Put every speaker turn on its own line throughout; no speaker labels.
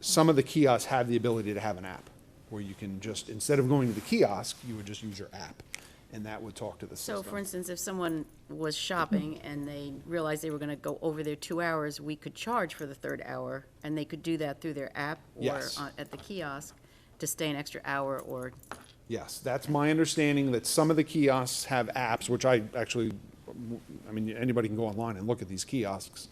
some of the kiosks have the ability to have an app where you can just, instead of going to the kiosk, you would just use your app and that would talk to the
So for
system.
instance, if someone was shopping and they realized they were gonna go over their two hours, we could charge for the third hour, and they could do that through their app or
Yes.
on- at the kiosk to stay an extra hour or,
Yes, that's my understanding that some of the kiosks have apps, which I actually, I mean, anybody can go online and look at these kiosks.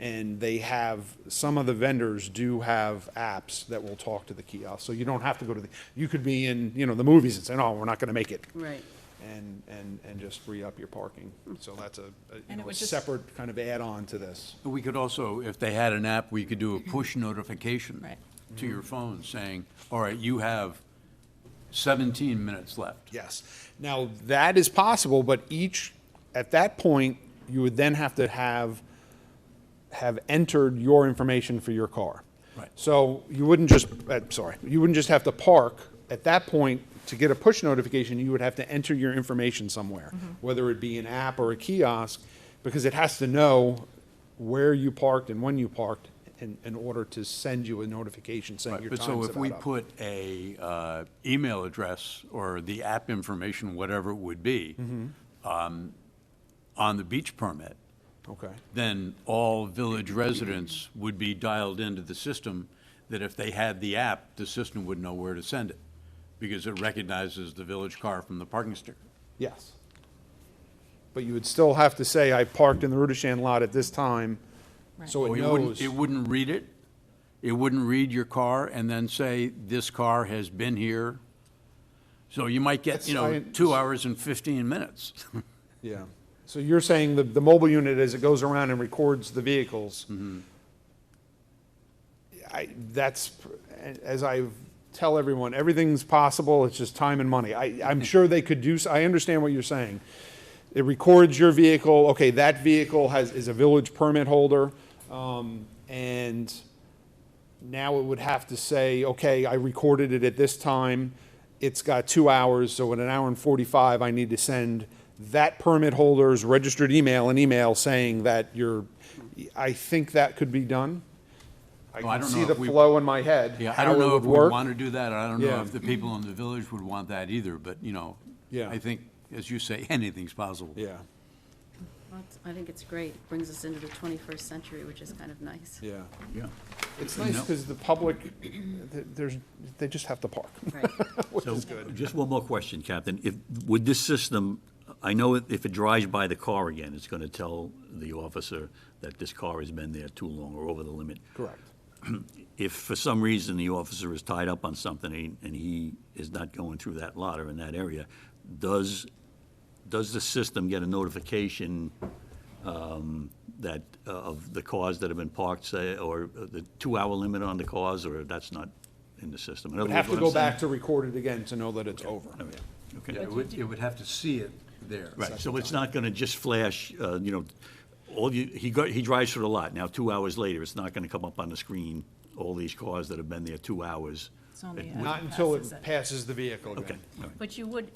And they have, some of the vendors do have apps that will talk to the kiosk. So you don't have to go to the, you could be in, you know, the movies and say, no, we're not going to make it.
right. Hmm.
and, and, and just free up your parking. So that's a, a, you
And it
know, a
would just-
separate kind of add-on to this.
We could also, if they had an app, we could do a push notification.
Right.
To your phone saying, all right, you have 17 minutes left.
Yes. Now, that is possible, but each, at that point, you would then have to have, have entered your information for your car.
Right.
So you wouldn't just, uh, sorry, you wouldn't just have to park. At that point, to get a push notification, you would have to enter your information somewhere,
Mm-hmm.
whether it be an app or a kiosk, because it has to know where you parked and when you parked in, in order to send you a notification saying
Right,
your
But
time's
so if we
about up.
put a uh, email address or the app information, whatever it would be,
Mm-hmm.
um, on the beach permit,
Okay.
then all village residents would be dialed into the system, that if they had the app, the system would know where to send it, because it recognizes the village car from the parking sticker.
Yes. But you would still have to say, I parked in the Rudishan lot at this time, so
Well,
it
it wouldn't,
knows.
it wouldn't read it, it wouldn't read your car and then say, this car has been here. So you might get, you know,
That's- I-
two hours and 15 minutes.
Yeah. So you're saying the, the mobile unit, as it goes around and records the vehicles,
Mm-hmm.
I, that's, as I tell everyone, everything's possible, it's just time and money. I, I'm sure they could do, s- I understand what you're saying. It records your vehicle, okay, that vehicle has, is a village permit holder, um, and now it would have to say, okay, I recorded it at this time, it's got two hours, so in an hour and forty-five, I need to send that permit holder's registered email an email saying that you're, I think that could be done. I
Well, I
can
don't
see
know
the
if we-
flow in my head.
Yeah, I
how
don't
it
know
would
if we
work.
want to do that, I don't
Yeah.
know if the people in the village would want that either, but, you know,
Yeah.
I think, as you say, anything's possible.
Yeah,
Well, it's- I think it's great, brings us into the twenty-first century, which is kind of nice.
yeah.
Yeah.
It's nice
No.
because the public, th- there's, they just have to park.
Right.
So, Just one more question, Captain. If, would this system, I know if if it drives by the car again, it's going to tell the officer that this car has been there too long or over the limit.
Correct.
If for some reason the officer is tied up on something and- and he is not going through that lot or in that area, does, does the system get a notification um, that, uh, of the cars that have been parked, say, or uh, the two-hour limit on the cars, or that's not in the system? In other
Would have
words,
to
what
go
I'm saying- Oh,
back to record it again to know that it's over.
Okay.
Yeah, It would, it would have to see it there.
Right, so it's not gonna just flash, uh, you know, all you, he go he drives through the lot, now two hours later, it's not gonna come up on the screen, all these cars that have been there two hours.
It's only
It
a-
would-
Not until
Passes
it
it.
passes the vehicle
Okay,
again.
all right.
But you would,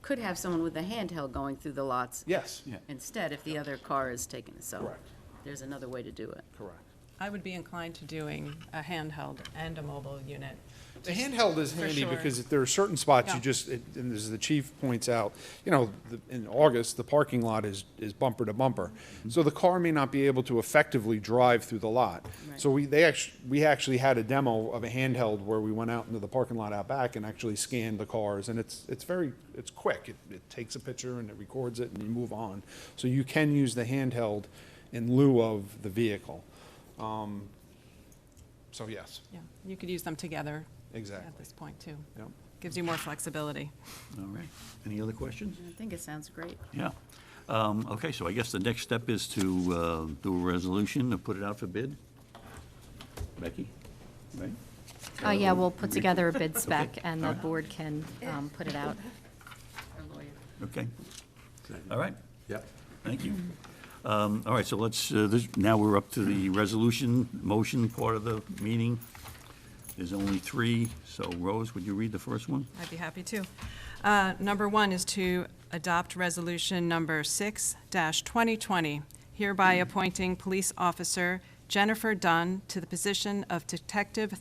could have someone with a handheld going through the lots.
Yes,
Yeah.
Instead, if the other car is taken, so.
Correct.
There's another way to do it.
correct.
I would be inclined to doing a handheld and a mobile unit.
The handheld is
For
handy
sure.
because there are certain spots you
Yeah.
just, it- and as the chief points out, you know, the- in August, the parking lot is, is bumper to bumper.
Mm-hmm.
So the car may not be able to effectively drive through the lot. So we, they actually, we actually had a demo of a handheld where we went out into the parking lot out back and actually scanned the cars. And it's, it's very, it's quick. It, it takes a picture and it records it and you move on. So you can use the handheld in lieu of the vehicle. Um, So yes,
Yeah, you could use them together
exactly.
at this point, too.
Yep.
Gives you more flexibility.
All right, any other questions?
I think it sounds great.
Yeah, um, okay, so I guess the next step is to, uh, do a resolution and put it out for bid? Becky, right?
Uh, yeah, we'll put together a bid spec and the board can, um, put it out.
Our lawyer.
Okay, all right.
Yep.
Thank you. Um, All right, so let's, uh, this- now we're up to the resolution, motion part of the meeting. There's only three, so Rose, would you read the first one?
I'd be happy to. Uh, Number one is to adopt Resolution Number 6-2020, hereby appointing Police Officer Jennifer Dunn to the position of Detective